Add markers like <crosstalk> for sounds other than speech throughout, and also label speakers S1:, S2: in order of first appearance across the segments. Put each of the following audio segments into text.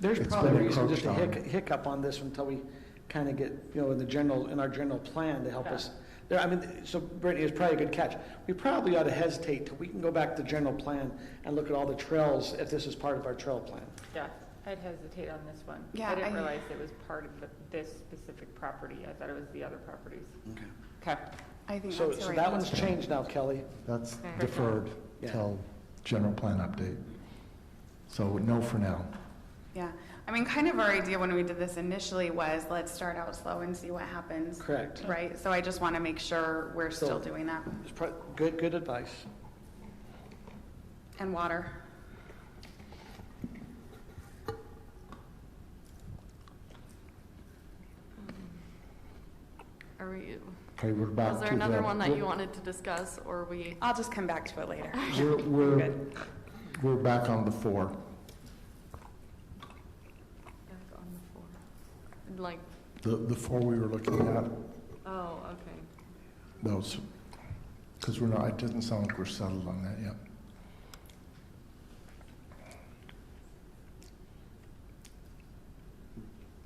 S1: There's
S2: Um, It's
S1: probably
S2: been
S1: reason just to
S2: encroached on.
S1: hic- hiccup on this until we kind of get, you know, in the general, in our general plan to help us. There, I mean, so Brittany, it's probably a good catch. We probably ought to hesitate till we can go back to the general plan and look at all the trails, if this is part of our trail plan.
S3: Yeah, I'd hesitate on this one.
S4: Yeah,
S3: I didn't
S4: I-
S3: realize it was part of the- this specific property. I thought it was the other properties.
S1: Okay.
S3: Okay.
S4: I think
S1: So,
S4: that's the
S1: so
S4: right
S1: that one's
S4: answer.
S1: changed now, Kelly.
S2: That's
S3: Okay.
S2: deferred
S1: Yeah.
S2: till general plan update. So no for now.
S4: Yeah, I mean, kind of our idea when we did this initially was, let's start out slow and see what happens,
S1: Correct.
S4: right? So I just want to make sure we're
S1: So-
S4: still doing that.
S1: It's prob, good, good advice.
S4: And water.
S5: Are we,
S2: Okay, we're back to the.
S5: was there another one that you wanted to discuss, or we?
S4: I'll just come back to it later.
S2: We're,
S5: <laughs>
S2: we're, we're back on the four.
S5: Back on the floor. Like,
S2: The, the four we were looking at,
S5: oh, okay.
S2: those, because we're not, it doesn't sound like we're settled on that yet.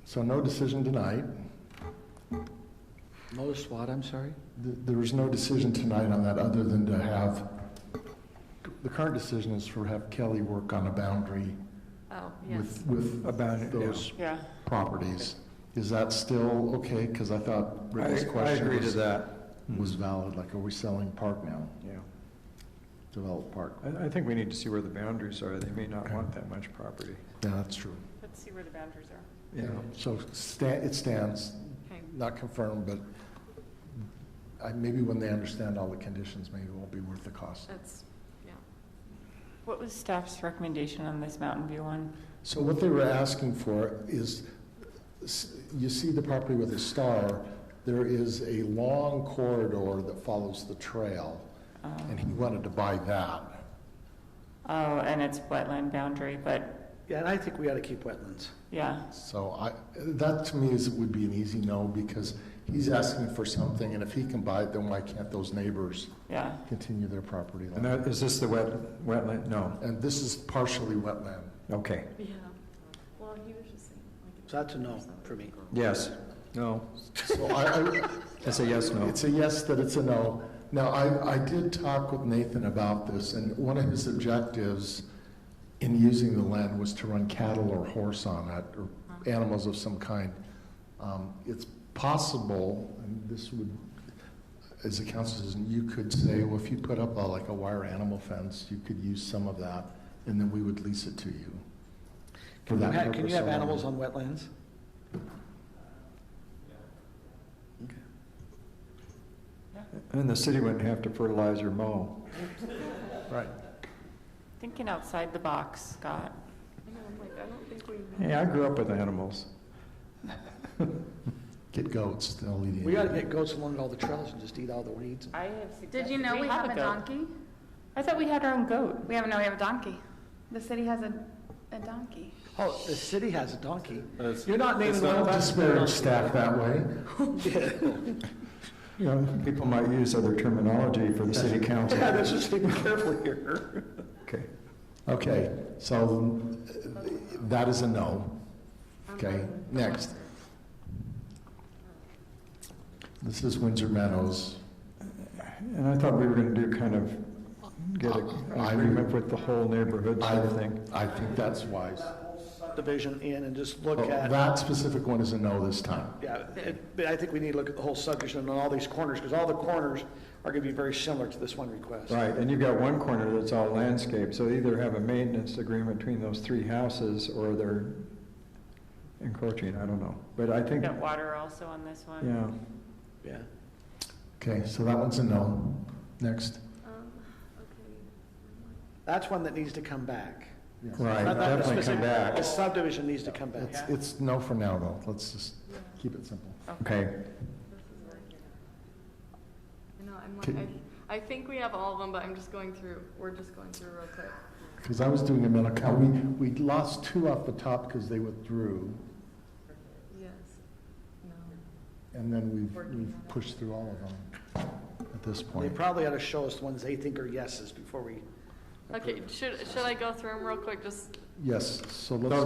S2: So no decision tonight.
S1: Lowest what, I'm sorry?
S2: Th- There was no decision tonight on that, other than to have, the current decision is for have Kelly work on a boundary
S5: Oh, yes.
S2: with, with those
S3: Yeah.
S2: properties. Is that still okay? Because I thought Rick's question was,
S6: that.
S2: was valid, like, are we selling park now,
S6: Yeah,
S2: developed park?
S6: I, I think we need to see where the boundaries are. They may not want that much property.
S2: Yeah, that's true.
S3: Let's see where the boundaries are.
S6: Yeah,
S2: So sta- it stands,
S5: Okay.
S2: not confirmed, but I, maybe when they understand all the conditions, maybe it won't be worth the cost.
S5: That's, yeah.
S3: What was staff's recommendation on this Mountain View one?
S2: So what they were asking for is, s- you see the property with a star, there is a long corridor that follows the trail,
S3: Um,
S2: and he wanted to buy that.
S7: Oh, and it's wetland boundary, but,
S1: Yeah, and I think we ought to keep wetlands.
S7: yeah,
S2: So I, that to me is, would be an easy no, because he's asking for something, and if he can buy it, then why can't those neighbors
S7: yeah.
S2: continue their property
S6: and
S2: line?
S6: that, is this the wet, wetland? No,
S2: And this is partially wetland.
S6: okay,
S5: Yeah. Well, he was just saying. like,
S1: So that's a no for me.
S6: yes, no,
S2: So I, I,
S6: that's a yes, no.
S2: It's a yes that it's a no. Now, I, I did talk with Nathan about this, and one of his objectives in using the land was to run cattle or horse on it, or animals of some kind. Um, It's possible, and this would, as a council citizen, you could say, well, if you put up a, like a wire animal fence, you could use some of that, and then we would lease it to you. for
S1: Can you
S2: that
S1: ha- can
S2: purpose
S1: you have
S2: alone.
S1: animals on wetlands? Okay.
S6: And the city wouldn't have to fertilize or mow.
S2: Right.
S7: Thinking outside the box, Scott.
S5: you know, I'm like, I don't think we. <laughs>
S6: Hey, I grew up with animals.
S2: Get goats, they'll eat it.
S1: We ought to get goats along all the trails and just eat all the weeds.
S3: I have suggested.
S4: Did you know we have a
S7: goat.
S4: donkey?
S7: I thought we had our own goat.
S4: We have, no, we have a donkey. The city has a, a donkey.
S1: Oh, the city has a donkey.
S6: That's-
S1: You're not naming
S6: that's
S1: one
S2: Don't disparage staff that way.
S6: <laughs> You know, people might use other terminology for the city council.
S2: <laughs>
S1: Yeah, this is being careful here.
S6: Okay,
S2: Okay, so uh, that is a no. Okay, next. This is Windsor Meadows.
S6: and I thought we were gonna do kind of, get a-
S2: I- I-
S6: an agreement with the whole neighborhood
S2: I,
S6: sort of thing.
S2: I think that's wise.
S1: Division in and just look
S6: Oh,
S2: But
S1: at,
S2: That specific one is a no this time.
S1: yeah, it- but I think we need to look at the whole subdivision and all these corners, because all the corners are going to be very similar to this one request.
S6: Right, and you've got one corner that's all landscape, so either have a maintenance agreement between those three houses, or they're encroaching, I don't know. But I
S7: We
S6: think,
S7: got water also on this one.
S6: yeah,
S1: Yeah.
S2: Okay, so that one's a no. Next.
S5: Um, okay.
S1: That's one that needs to come back. Not-
S6: right,
S1: not the
S6: definitely come
S1: specific-
S6: back.
S1: The subdivision needs to come back.
S2: It's, it's no for now, though. Let's just keep it simple.
S6: Okay,
S5: No, I'm like,
S2: Can-
S5: I, I think we have all of them, but I'm just going through, we're just going through real quick.
S2: Because I was doing a mental count. We, we lost two off the top because they withdrew,
S5: Yes. No.
S2: and then we've, we've pushed through all of them at this
S1: They
S2: point.
S1: probably ought to show us the ones they think are yeses before we
S5: Okay, should, should I go through them real quick, just
S2: Yes, so let's.